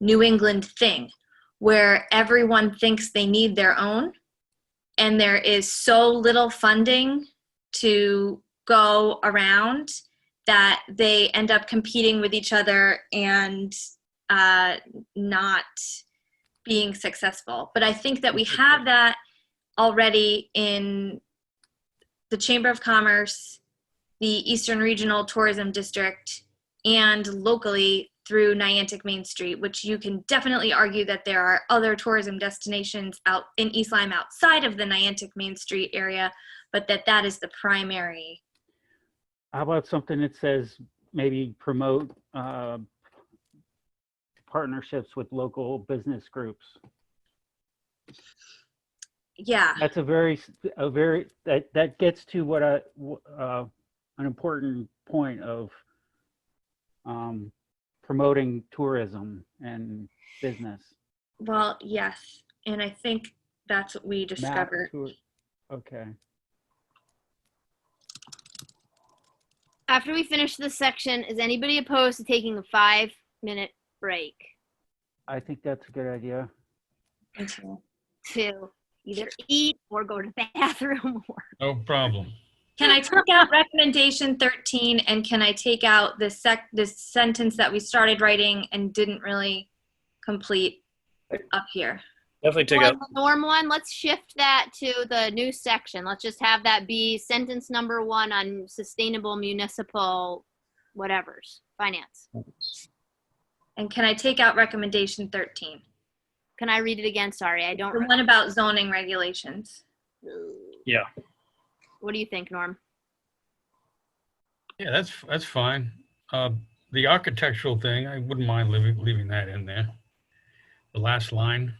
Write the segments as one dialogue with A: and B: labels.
A: New England thing where everyone thinks they need their own and there is so little funding to go around that they end up competing with each other and uh, not being successful. But I think that we have that already in the Chamber of Commerce, the Eastern Regional Tourism District, and locally through Niantic Main Street, which you can definitely argue that there are other tourism destinations out in East Lyme outside of the Niantic Main Street area, but that that is the primary.
B: How about something that says maybe promote uh, partnerships with local business groups?
A: Yeah,
B: That's a very, s- a very, that, that gets to what I, w- uh, an important point of um, promoting tourism and business.
A: well, yes. And I think that's what we
B: Map
A: discovered.
B: tour- Okay,
C: After we finish this section, is anybody opposed to taking a five minute break?
B: I think that's a good idea.
A: Until-
C: To either eat or go to the bathroom or
D: No problem.
A: Can I take out recommendation 13 and can I take out the sec, this sentence that we started writing and didn't really complete up here?
E: Definitely take
C: Or
E: out.
C: the norm one. Let's shift that to the new section. Let's just have that be sentence number one on sustainable municipal whatever's finance.
A: And can I take out recommendation 13?
C: Can I read it again? Sorry, I don't.
A: The one about zoning regulations.
E: Yeah.
C: What do you think, Norm?
D: Yeah, that's, that's fine. Uh, The architectural thing, I wouldn't mind leaving, leaving that in there. The last line.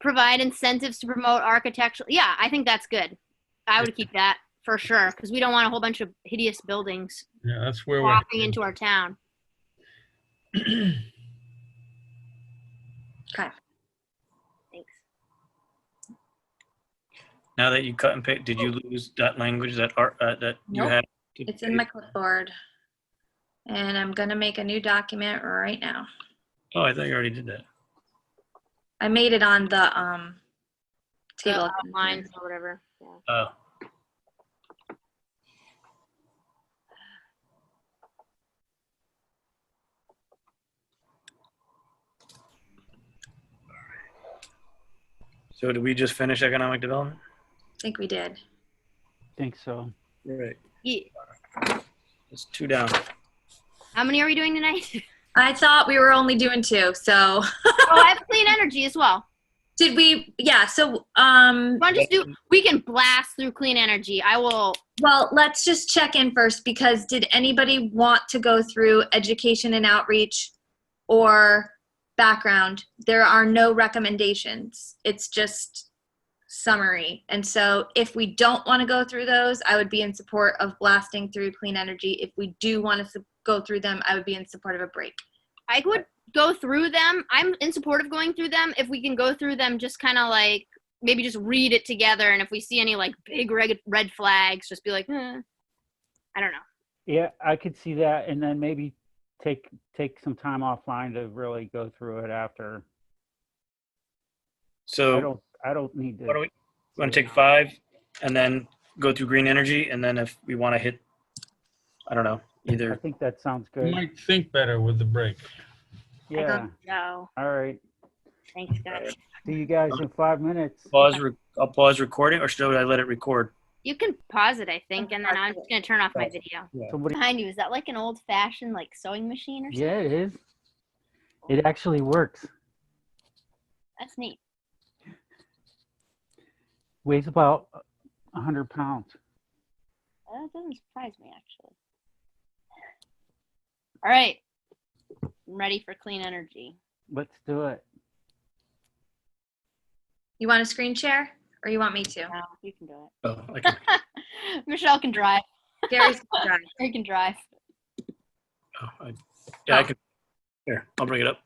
C: provide incentives to promote architectural. Yeah, I think that's good. I would keep that for sure because we don't want a whole bunch of hideous buildings
D: Yeah, that's where we're.
C: walking into our town.
A: Okay.
C: Thanks.
E: Now that you cut and paste, did you lose that language that art uh, that you
A: Nope.
E: had?
A: It's in my clipboard. And I'm gonna make a new document right now.
E: Oh, I thought you already did that.
A: I made it on the, um,
C: The
A: table.
C: outlines Uh, or whatever. Yeah.
E: Oh, so did we just finish economic development?
A: I think we did.
B: Think so.
E: Right.
C: Ye-
E: It's two down.
C: How many are we doing tonight?
A: I thought we were only doing two, so,
C: oh, I have clean energy as well.
A: did we, yeah, so, um,
C: Want to just do? We can blast through clean energy. I will.
A: well, let's just check in first because did anybody want to go through education and outreach or background? There are no recommendations. It's just summary. And so if we don't want to go through those, I would be in support of blasting through clean energy. If we do want to go through them, I would be in support of a break.
C: I would go through them. I'm in support of going through them. If we can go through them, just kind of like maybe just read it together, and if we see any like big red red flags, just be like, eh. I don't know.
B: Yeah, I could see that, and then maybe take, take some time offline to really go through it after. I
E: So
B: don't, I don't need to.
E: what do we want
B: see
E: to
B: it
E: take
B: now.
E: five and then go through green energy and then if we want to hit, I don't know,
B: I
E: either.
B: think that sounds
D: You
B: good.
D: might think better with the break.
B: Yeah,
C: No,
B: all right.
C: thanks, guys.
B: See you guys in five minutes.
E: Pause. Re- I'll pause recording, or should I let it record?
C: You can pause it, I think, and then I'm just gonna turn off my video.
B: Somebody,
C: Behind you is that like an old fashioned like sewing machine or something?
B: yeah, it is. It actually works.
C: That's neat.
B: Weighs about a hundred pounds.
C: That doesn't surprise me actually. All right, I'm ready for clean energy.
B: Let's do it.
A: You want a screen share or you want me to?
C: Now you can do
E: Oh, I can,
C: it. Michelle can drive.
A: Gary's gonna drive.
C: Or you can drive.
A: Oh.
E: oh, I, yeah, I can. Here, I'll bring it up.